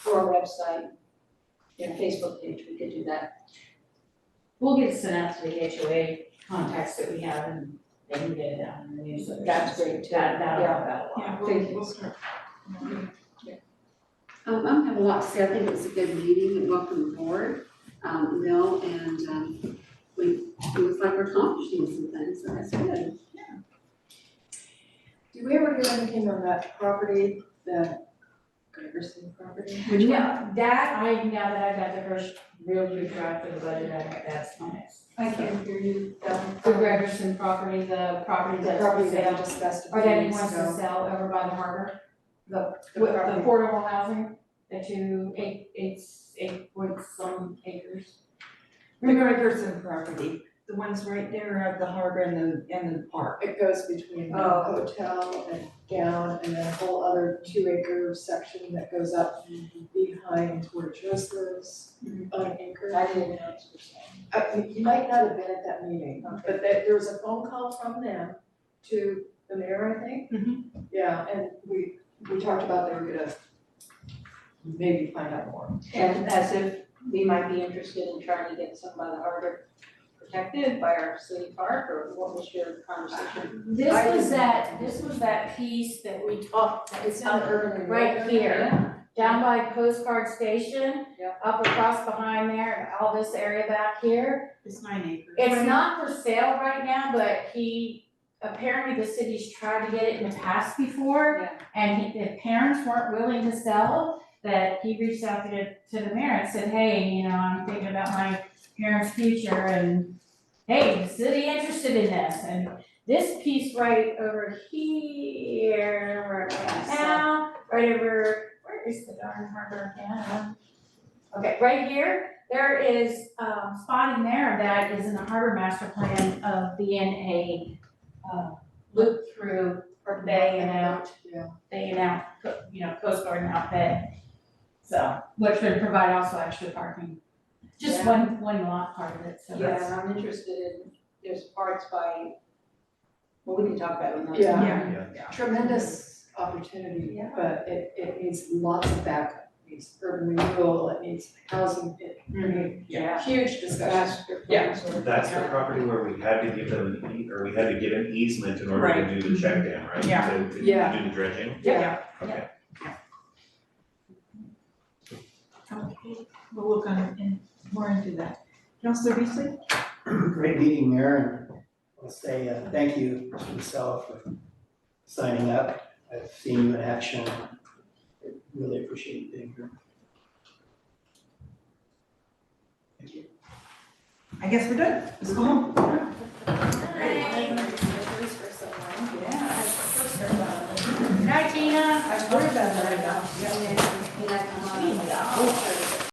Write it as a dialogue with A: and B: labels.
A: for our website and Facebook page, we could do that.
B: We'll get it sent out to the HOA contacts that we have and they can get it out in the newsletter.
A: That's great too,
B: That, that'll,
A: yeah.
B: that'll.
C: Yeah,
A: Thank
C: we'll,
A: you.
C: we'll start.
D: Um, I don't have a lot to say, I think it was a good meeting, and welcome aboard, um, you know, and, um, we, it was like we're accomplishing some things, so that's good.
C: Did we ever do anything on that property, the Gregerson property?
D: Which one?
B: Yeah, that, I, now that I've got the first real good draft of the budget, I, that's my next.
C: hear you, um,
B: The Gregerson property, the property
C: The
B: that's
C: property
B: for
C: that
B: sale,
C: we discussed a
B: or
C: few
B: that he
C: weeks
B: wants to
C: ago.
B: sell over by the harbor. The,
C: The
B: with the
C: property.
B: affordable housing, the two, eight, eight, eight point some acres.
E: The Gregerson property, the ones right there at the harbor and the, and the park.
C: It goes between the
E: Oh.
C: hotel and down and then a whole other two acre section that goes up behind where Joe's lives, on acre.
A: Mm-hmm. I didn't know it's for sale.
C: Uh, you- you might not have been at that meeting, but there, there was a phone call from them to the mayor, I think.
A: Mm-hmm.
C: Yeah, and we, we talked about they were gonna maybe find out more.
A: And as if we might be interested in trying to get some by the harbor protected by our city park, or what was your conversation?
F: This
C: I
F: was
C: didn't-
F: that, this was that piece that we talked, that
C: It's
F: it's
A: Um,
C: in the
F: up
C: urban.
F: right here,
A: Yeah,
F: down by postcard station,
A: Yep.
F: up across behind there, all this area back here.
E: It's nine acres.
F: It's not for sale right now, but he, apparently the city's tried to get it in the past before.
A: Yeah.
F: And he, the parents weren't willing to sell, that he reached out to, the- to the mayor and said, hey, you know, I'm thinking about my parents' future and hey, is the city interested in this? And this piece right over here, where am I at now, right over, where is the darn harbor now? Okay, right here, there is um spot in there that is in the harbor master plan of being a uh loop through or bay and out,
C: Yeah.
F: bay and out, co- you know, coast guard and out bay. So, which would provide also extra parking, just
A: Yeah.
F: one one lot part of it, so that's.
A: Yeah, I'm interested in, there's parts by, well, we can talk about it another
C: Yeah.
A: time.
E: Yeah.
C: Tremendous opportunity,
A: Yeah.
C: but it, it needs lots of backup, it needs urban renewal, it needs housing, it, I mean,
A: Yeah.
C: huge discussion.
A: Master
C: Yeah.
A: plans or-
G: That's the property where we had to give them, an ea- or we had to give an easement in order to do the check dam, right?
E: Yeah.
G: To- to
C: Yeah.
G: do the dredging,
C: Yeah.
G: okay.
E: Okay, we'll look on, in, more into that. Counselor Beasley?
H: Great meeting, Mayor, and I'll say uh, thank you, Mr. Michelle, for signing up. I've seen you in action. I Really appreciate you being here. Thank you.
E: I guess we're done. Let's go home.
F: Yeah. Night, Tina.
C: I worry about that enough.
F: Yeah.